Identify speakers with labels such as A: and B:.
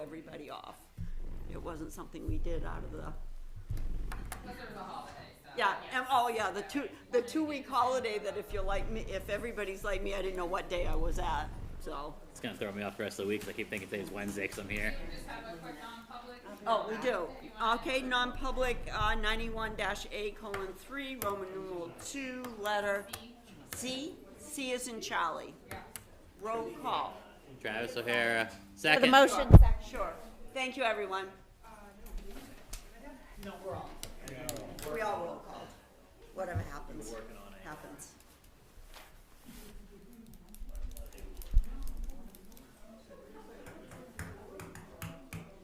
A: everybody off. It wasn't something we did out of the,
B: Plus there was a holiday, so.
A: yeah, and, oh, yeah, the two, the two-week holiday that if you're like me, if everybody's like me, I didn't know what day I was at, so.
C: It's gonna throw me off the rest of the week, 'cause I keep thinking today's Wednesday, 'cause I'm here.
B: We Just have a quick non-public.
A: Oh, we do. Okay, non-public, uh, ninety-one dash A colon three, Roman numeral two, letter C, C is in Charlie. Roll call.
C: Travis O'Hara,
D: For the
C: second.
D: motion,
A: Sure. Thank you, everyone. No, we're all. We all roll call. Whatever happens, happens.